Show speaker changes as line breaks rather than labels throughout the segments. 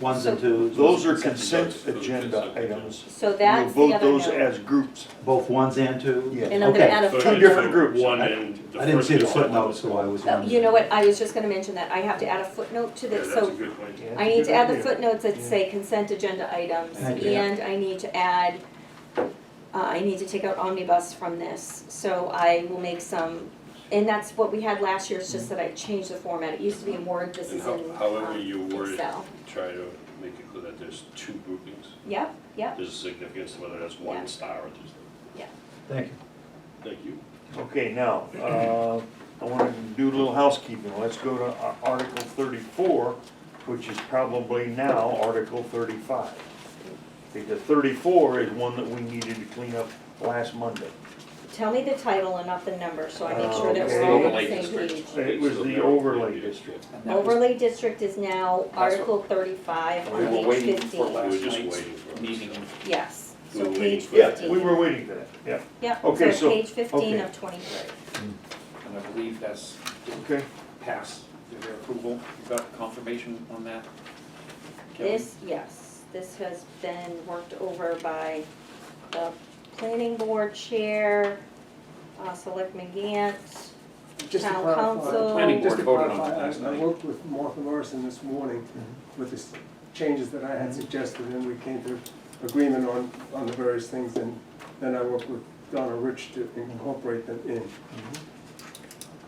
ones and twos.
Those are
Consent
consent
votes.
agenda items.
So
We'll
that's the
vote
other
those
note.
as groups.
Both ones and twos?
Yeah.
And I'm gonna
Okay.
add a
So
Two
it's
footnote.
different
a
groups.
One
I-
and the
I didn't
first
see the
consent
footnote,
was-
so I was.
Oh, You know what, I was just gonna mention that, I have to add a footnote to
Yeah,
this,
that's a
so
good point.
I need to add the
Yeah.
footnotes that say consent agenda items,
Thank you.
and I need to add, uh, I need to take out omnibus from this, so I will make some, and that's what we had last year, it's just that I changed the format, it used to be in Word, this
And
is in
how-
um,
however you word it.
Excel.
Try to make it clear that there's two groupings.
Yep, yep,
There's significance, whether that's one
Yeah.
star or just,
Thank you.
thank you.
Okay, now, uh, I want to do a little housekeeping. Let's go to Ar- Article thirty-four, which is probably now Article thirty-five. Because thirty-four is one that we needed to clean up last Monday.
tell me the title and not the number, so I make
Uh,
sure
Oh,
that we're
okay.
all on the
Overlay
same
district.
page.
It was the
So-
overlay district.
And that was-
Overlay district is now
what-
Article thirty-five
We
on
were
page
waiting for
fifteen,
that.
last
We were just
night's
waiting for it.
meeting.
yes,
We were
so
waiting
page
for that.
fifteen.
Yeah, we were waiting for that, yeah.
Yep,
Okay, so-
so page fifteen
okay.
of twenty-three.
And I believe that's
Okay,
passed, their approval. You got confirmation on that? Kelly?
This, yes, this has been worked over by the planning board chair, uh, Selectman Gant.
Just to
Town
clarify,
council.
Planning
just
board
to
voted on
clarify,
it last
I- I
night.
worked with Martha Morrison this morning
Mm-hmm.
with the s- changes that I had
Mm-hmm.
suggested, and we came to agreement on, on the various things, and then I worked with Donna Rich to incorporate them in.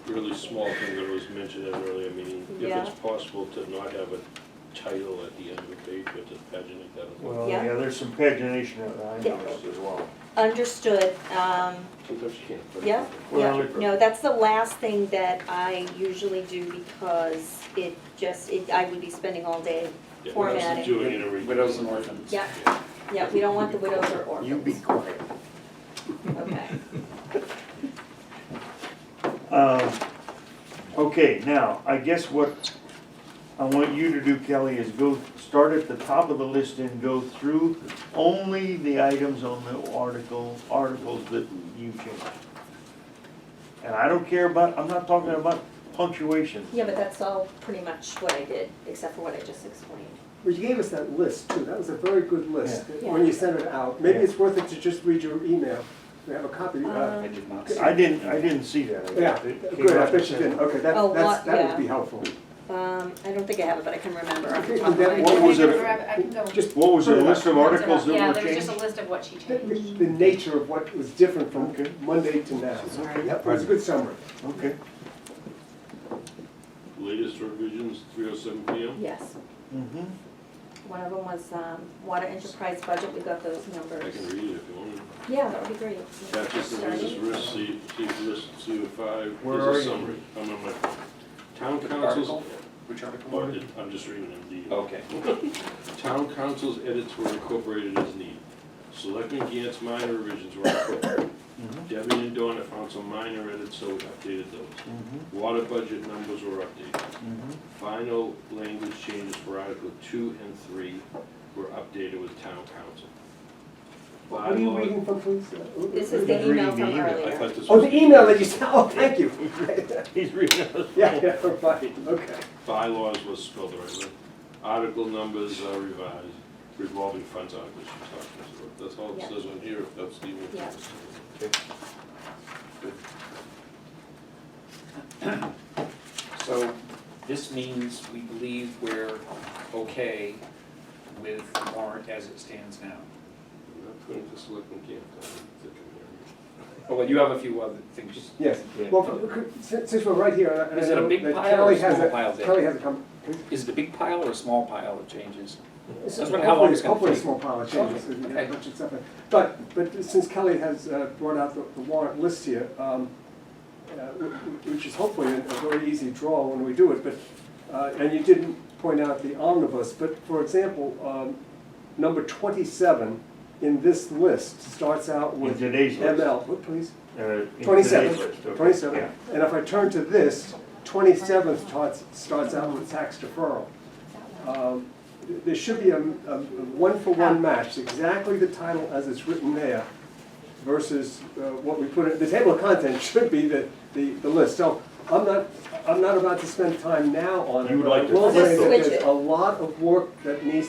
Really small thing that was mentioned at an earlier meeting, if
Yeah.
it's possible to not have a title at the end of the page, but to paginate that. as well.
well,
Yeah.
yeah, there's some pagination that I noticed as well.
Understood, um,
Sometimes you can't. put it
Yeah.
in there.
yeah,
Well,
no, that's the last thing that I usually do because it just, it, I would be spending all day.
Yeah,
Formatting.
Doing it every.
Widows and orphans.
Yeah, yeah, we don't want the widows or orphans.
You be quiet.
Okay,
Um, Okay, now, I guess what I want you to do, Kelly, is go, start at the top of the list and go through only the items on the article, articles that you changed. And I don't care about, I'm not talking about punctuation.
yeah, but that's all pretty much what I did, except for what I just explained.
Well, you gave us that list too, that was a very good list,
Yeah.
when you sent it out. Maybe
Yeah.
it's worth it to just read your email, we have a copy. uh,
Um,
I did not see.
I didn't, I didn't see that.
Yeah,
It came
good, I
out
bet you
the
didn't, okay,
Oh,
that's, that's,
what-
that
yeah.
would be helpful.
Um, I don't think I have it, but I can remember off the
Okay,
top of
and
my head.
then
What was it?
I can go.
Just
What was the list of articles
Yeah,
that were
there was just a
changed?
list of what she
the, the
changed.
the nature of what was different from
Okay.
Monday to now.
Sorry.
That was a good summary.
Okay.
Latest revisions, three oh seven P M.
Yes,
Mm-hmm.
one of them was, um, water enterprise budget, we got those numbers.
I can read it if you want.
Yeah, that'd be great.
Taxes and wages risk, see, see risk, CO five,
Where
here's a
are you?
summary. I'm on my phone. Town
Which
councils, Oh.
article? Which article?
budget, I'm just reading it, the.
Okay.
Town council's edits were incorporated as needed. Selectmen Gant's minor revisions were incorporated.
mm-hmm,
Debbie and Donna found some minor edits, so we updated those.
mm-hmm,
Water budget numbers were updated. Final language changes for Article two and three were updated with town council.
What are you
Bylaw-
reading from, please? Uh, who-
This
who
is
did
the email
you-
reading the
from
email.
I
earlier.
thought this
Oh,
was-
the email that you sent, oh, thank you.
He's reading it.
Yeah, yeah, right, okay.
bylaws was spelled the right way. Article numbers are revised, revolving funds articles she's talking about. That's all
Yeah.
it says on here, if that's the.
Yeah.
So this means we believe we're okay with the warrant as it stands now.
I'm not putting this looking camp down.
Oh, well, you have a few other things.
Yes,
Yeah.
well, we could- since since we're right here, and I- and I
Is it a
know
big
that
pile or
Kelly
small
has a,
pile, Dick?
Kelly has a comment.
Is it a big pile or a small pile of changes?
This
I was
is
wondering how long
hopefully-
it's gonna
Hopefully a
take.
small pile of changes,
Okay,
and you
okay.
have a bunch of stuff. in. But, but since Kelly has uh, brought out the the warrant list here, um, uh, wh- wh- which is hopefully a a very easy draw when we do it, but, uh, and you didn't point out the omnibus, but for example, um, number twenty-seven in this list starts out
In
with
today's list.
ML, what, please?
Uh, in today's
Twenty-seven,
list, okay,
twenty-seven.
yeah.
And if I turn to this, twenty-seven starts, starts out with tax deferral. Um, th- There should be a, a a one-for-one match, exactly the title as it's written there versus uh, what we put in, the table of contents should be the, the, the list. So I'm not, I'm not about to spend time now on it.
You would
but I
like to
will
flip
say that
Switch it.
there's a lot of work that needs